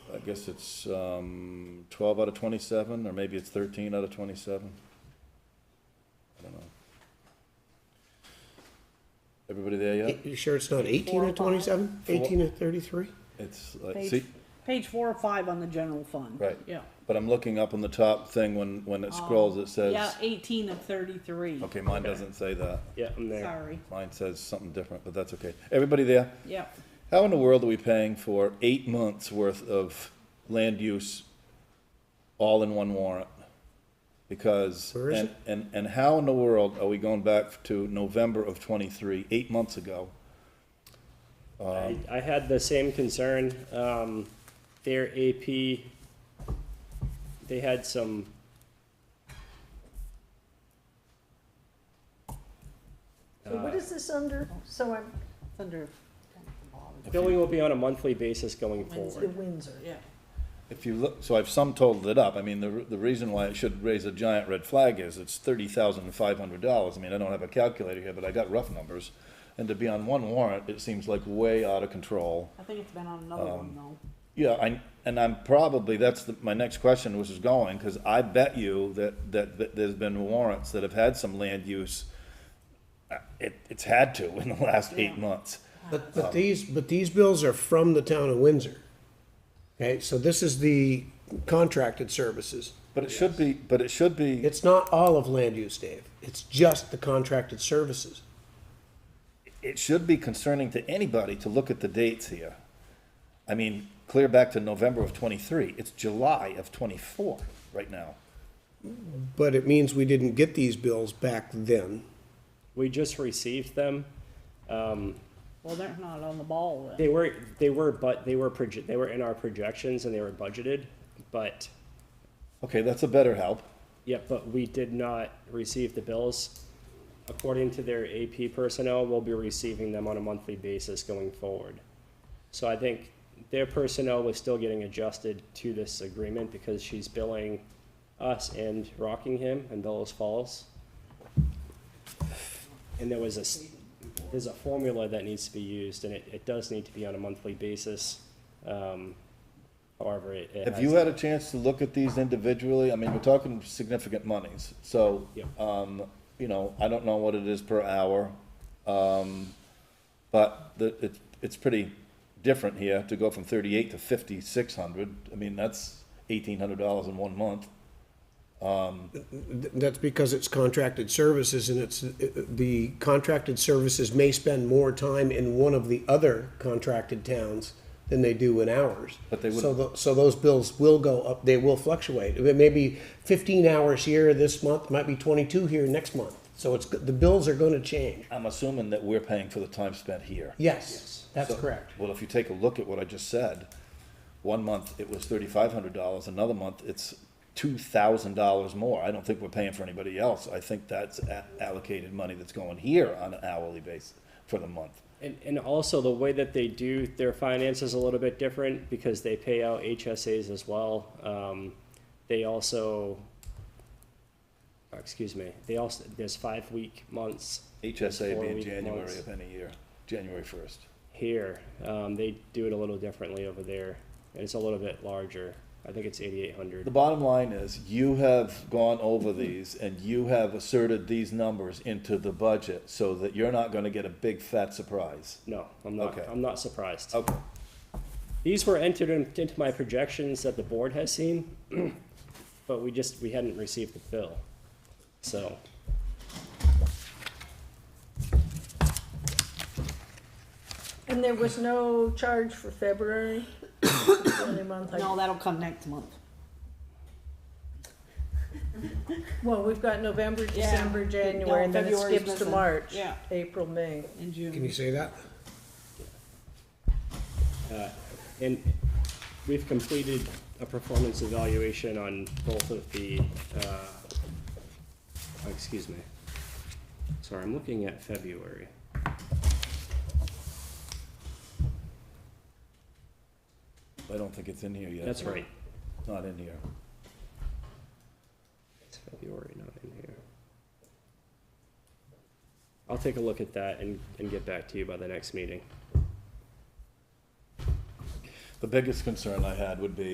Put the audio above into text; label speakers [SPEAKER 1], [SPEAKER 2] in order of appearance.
[SPEAKER 1] guess it's, um, twelve out of twenty-seven, or maybe it's thirteen out of twenty-seven. I don't know. Everybody there yet?
[SPEAKER 2] You sure it's not eighteen
[SPEAKER 3] Four
[SPEAKER 2] to
[SPEAKER 3] or five?
[SPEAKER 2] twenty-seven?
[SPEAKER 1] Four.
[SPEAKER 2] Eighteen to thirty-three?
[SPEAKER 1] It's like,
[SPEAKER 3] Page-
[SPEAKER 1] see,
[SPEAKER 3] Page four or five on the general fund.
[SPEAKER 1] Right.
[SPEAKER 3] Yeah.
[SPEAKER 1] but I'm looking up on the top thing when, when it scrolls, it
[SPEAKER 3] Oh, Yeah,
[SPEAKER 1] says,
[SPEAKER 3] eighteen of thirty-three.
[SPEAKER 1] okay, mine doesn't say that.
[SPEAKER 2] Yeah, I'm there.
[SPEAKER 3] Sorry,
[SPEAKER 1] Mine says something different, but that's okay. Everybody there?
[SPEAKER 3] yeah.
[SPEAKER 1] How in the world are we paying for eight months' worth of land use all in one warrant? Because,
[SPEAKER 2] Where is
[SPEAKER 1] and,
[SPEAKER 2] it?
[SPEAKER 1] and, and how in the world are we going back to November of twenty-three, eight months ago?
[SPEAKER 4] I, I had the same concern, um, their AP, they had some.
[SPEAKER 5] So what is this under? So I'm,
[SPEAKER 3] It's under,
[SPEAKER 4] Billing will be on a monthly basis going
[SPEAKER 5] the
[SPEAKER 4] forward.
[SPEAKER 5] Windsor.
[SPEAKER 3] yeah.
[SPEAKER 1] If you look, so I've sum totaled it up. I mean, the, the reason why it should raise a giant red flag is it's thirty thousand five hundred dollars. I mean, I don't have a calculator here, but I got rough numbers. And to be on one warrant, it seems like way out of control.
[SPEAKER 3] I think it's been on another
[SPEAKER 1] Um,
[SPEAKER 3] one though.
[SPEAKER 1] Yeah, I, and I'm probably, that's the, my next question, which is going, because I bet you that, that, that there's been warrants that have had some land use. Uh, It, it's had to in the last eight
[SPEAKER 3] Yeah.
[SPEAKER 1] months.
[SPEAKER 2] But, but these, but these bills are from the town of Windsor. Okay, so this is the contracted services.
[SPEAKER 1] But it should be, but it should be,
[SPEAKER 2] It's not all of land use, Dave. It's just the contracted services.
[SPEAKER 1] it should be concerning to anybody to look at the dates here. I mean, clear back to November of twenty-three, it's July of twenty-four right now.
[SPEAKER 2] But it means we didn't get these bills back then.
[SPEAKER 4] We just received them. Um,
[SPEAKER 3] Well, they're not on the ball then.
[SPEAKER 4] they were, they were, but they were proje- they were in our projections and they were budgeted, but,
[SPEAKER 1] Okay, that's a better help.
[SPEAKER 4] yeah, but we did not receive the bills. According to their AP personnel, we'll be receiving them on a monthly basis going forward. So I think their personnel was still getting adjusted to this agreement because she's billing us and Rockingham and Bellows Falls. And there was a, s- there's a formula that needs to be used and it, it does need to be on a monthly basis. Um, however, it. it
[SPEAKER 1] Have
[SPEAKER 4] has-
[SPEAKER 1] you had a chance to look at these individually? I mean, we're talking significant monies, so,
[SPEAKER 4] Yeah.
[SPEAKER 1] um, you know, I don't know what it is per hour. Um, but the, it, it's pretty different here to go from thirty-eight to fifty-six hundred. I mean, that's eighteen hundred dollars in one month.
[SPEAKER 2] Th- That's because it's contracted services and it's, uh, the contracted services may spend more time in one of the other contracted towns than they do in ours.
[SPEAKER 1] But they wouldn't-
[SPEAKER 2] So, tho- so those bills will go up, they will fluctuate. It may be fifteen hours here this month, might be twenty-two here next month. So it's, the bills are gonna change.
[SPEAKER 1] I'm assuming that we're paying for the time spent here.
[SPEAKER 2] Yes, that's
[SPEAKER 1] So-
[SPEAKER 2] correct.
[SPEAKER 1] Well, if you take a look at what I just said, one month it was thirty-five hundred dollars, another month it's two thousand dollars more. I don't think we're paying for anybody else. I think that's a- allocated money that's going here on an hourly basis for the month.
[SPEAKER 4] And, and also the way that they do their finances a little bit different because they pay out HSAs as well. Um, they also, oh, excuse me, they also, there's five week months
[SPEAKER 1] HSA
[SPEAKER 4] Four
[SPEAKER 1] being
[SPEAKER 4] week
[SPEAKER 1] January
[SPEAKER 4] months.
[SPEAKER 1] of any year, January first.
[SPEAKER 4] here. Um, they do it a little differently over there. And it's a little bit larger. I think it's eighty-eight
[SPEAKER 1] The
[SPEAKER 4] hundred.
[SPEAKER 1] bottom line is, you have gone over these and you have asserted these numbers into the budget so that you're not gonna get a big fat surprise.
[SPEAKER 4] No, I'm not,
[SPEAKER 1] Okay.
[SPEAKER 4] I'm not surprised.
[SPEAKER 1] Okay.
[SPEAKER 4] These were entered in- into my projections that the board has seen, but we just, we hadn't received the bill. So,
[SPEAKER 5] And there was no charge for February? Only month I-
[SPEAKER 3] No, that'll come next month.
[SPEAKER 5] Well, we've got November,
[SPEAKER 3] Yeah.
[SPEAKER 5] December, January, and then it
[SPEAKER 3] February's
[SPEAKER 5] skips to
[SPEAKER 3] missing.
[SPEAKER 5] March.
[SPEAKER 3] Yeah.
[SPEAKER 5] April, May.
[SPEAKER 3] In
[SPEAKER 2] Can you
[SPEAKER 3] June.
[SPEAKER 2] say that?
[SPEAKER 4] And we've completed a performance evaluation on both of the, uh, oh, excuse me. Sorry, I'm looking at February.
[SPEAKER 1] I don't think it's in here yet.
[SPEAKER 4] That's right.
[SPEAKER 1] It's Not in here.
[SPEAKER 4] It's February, not in here. I'll take a look at that and, and get back to you by the next meeting.
[SPEAKER 1] The biggest concern I had would be